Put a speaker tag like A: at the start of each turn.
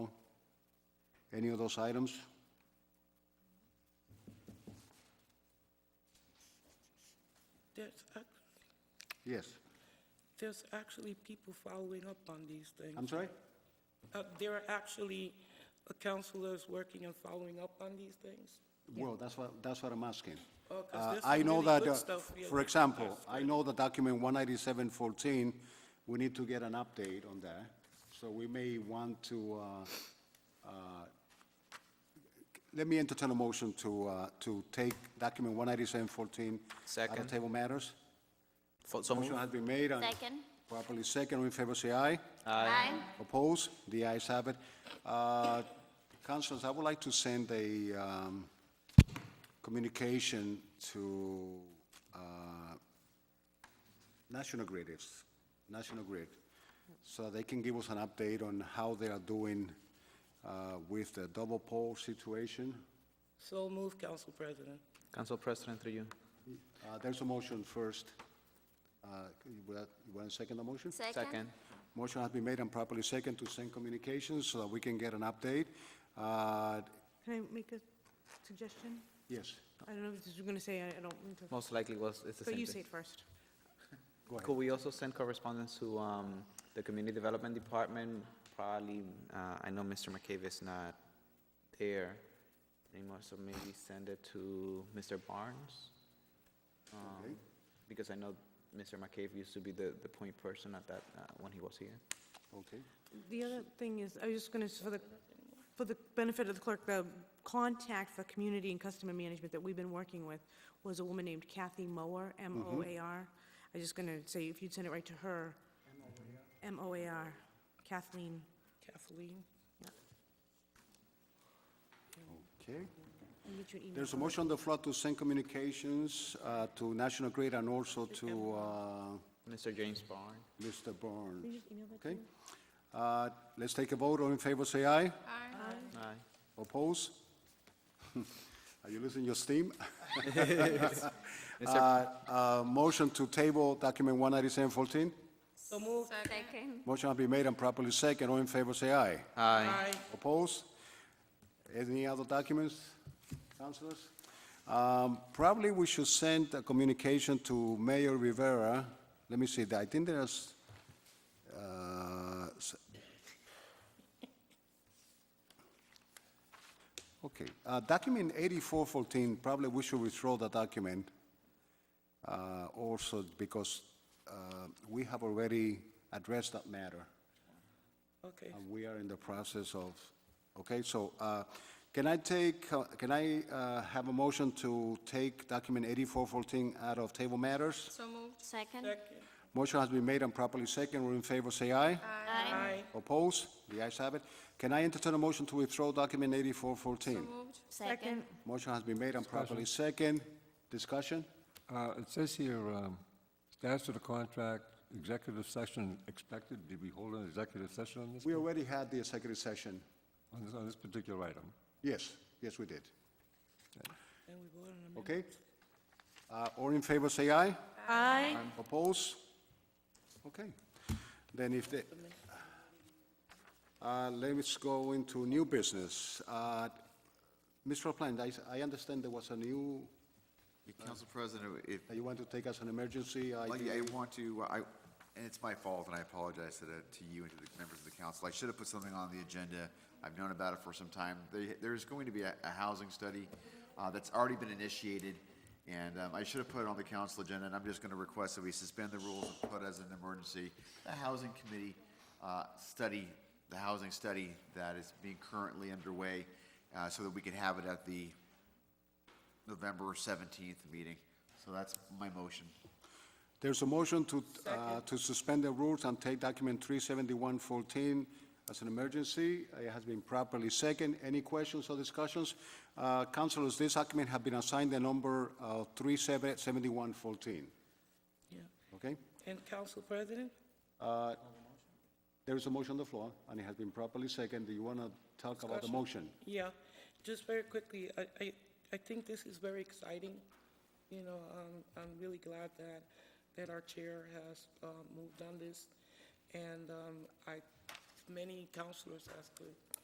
A: Any of those items?
B: There's, ac-
A: Yes.
B: there's actually people following up on these
A: I'm
B: things.
A: sorry?
B: Uh, There are actually uh, counselors working and following up on these things.
A: Well, that's what, that's what I'm asking.
B: Oh, 'cause
A: Uh,
B: there's
A: I
B: some
A: know
B: really
A: that,
B: good
A: uh,
B: stuff here.
A: for example, I know the document 19714, we need to get an update on that. So we may want to, uh, uh, let me entertain a motion to, uh, to take document 19714 out of
C: Second.
A: table matters.
C: For- So
A: Motion
C: moved.
A: has been made and
D: Second.
A: properly second. All in favor, say aye.
D: Aye.
A: Oppose? The ayes have it. Uh, Councilors, I would like to send a um, communication to uh, National Grid, it's National Grid, so they can give us an update on how they are doing uh, with the double pole situation.
B: So move, Council President.
C: Council President, through you.
A: Uh, There's a motion first. Uh, You want to second the motion?
C: Second.
A: Motion has been made and properly second to send communications so that we can get an update. Uh,
E: Can I make a suggestion?
A: Yes,
E: I don't know if this is going to say, I I don't mean to,
C: Most likely was, it's the
E: but
C: same
E: you say
C: thing.
E: it first.
A: go ahead.
C: Could we also send correspondence to um, the Community Development Department? Probably, uh, I know Mr. McCabe is not there anymore, so maybe send it to Mr. Barnes? Um,
A: Okay.
C: Because I know Mr. McCabe used to be the, the point person at that, uh, when he was here.
A: Okay.
E: The other thing is, I was just going to, for the, for the benefit of the clerk, the contact for community and customer management that we've been working with was a woman named Kathy Mower,
C: Mm-hmm.
E: M-O-A-R. I was just going to say, if you'd send it right to her. M-O-A-R. M-O-A-R, Kathleen.
B: Kathleen?
A: Okay.
E: I'll get you an email.
A: There's a motion on the floor to send communications uh, to National Grid and also to uh,
C: Mr. James Barnes?
A: Mr.
E: Can
A: Byrne.
E: you just email that to
A: Okay?
E: me?
A: Uh, Let's take a vote. All in favor, say aye.
C: Aye.
A: Oppose? Are you losing your steam?
C: Mr.
A: Uh, uh, Motion to table document 19714.
B: So move.
D: Second.
A: Motion has been made and properly second. All in favor, say aye.
C: Aye.
B: Aye.
A: Opposed? Any other documents, councilors? Um, Probably we should send a communication to Mayor Rivera. Let me see, I think there's, uh, s- okay, uh, document 8414, probably we should withdraw the document uh, also because uh, we have already addressed that matter.
B: Okay.
A: And we are in the process of, okay, so uh, can I take, uh, can I uh, have a motion to take document 8414 out of table matters?
D: So moved. Second.
B: Second.
A: Motion has been made and properly second. All in favor, say aye.
D: Aye.
B: Aye.
A: Oppose? The ayes have it. Can I entertain a motion to withdraw document 8414?
D: Second.
A: Motion has been made and properly second. Discussion?
F: Uh, It says here, um, status of the contract, executive session expected. Did we hold an executive session on this,
A: We already had the executive session.
F: on this- on this particular item?
A: Yes, yes, we did.
B: And we vote on them.
A: Okay? Uh, All in favor, say aye.
E: Aye.
A: Oppose? Okay. Then if the, Uh, let's go into new business. Uh, Mr. Plant, I, I understand there was a new,
G: Council President, if,
A: that you want to take as an emergency. I
G: like, I want to, I, and it's my fault, and I apologize to, the- to you and to the members of the council. I should have put something on the agenda. I've known about it for some time. There, there's going to be a, a housing study, uh, that's already been initiated, and, um, I should have put it on the council agenda, and I'm just gonna request that we suspend the rules and put as an emergency, the housing committee, uh, study, the housing study that is being currently underway, uh, so that we can have it at the November seventeenth meeting. So that's my motion.
A: There's a motion to, uh, to suspend the rules and take document 37114 as an emergency. It has been properly second. Any questions or discussions? Uh, Councilors, this document have been assigned the number uh, of 377114,
B: Yeah.
A: okay?
B: And Council President?
A: There is a motion on the floor, and it has been properly seconded. Do you want to talk about the
B: Discussion.
A: motion?
B: Yeah, just very quickly, I, I, I think this is very exciting. You know, um, I'm really glad that, that our chair has, uh, um, moved on this. And, um, I, many councilors has to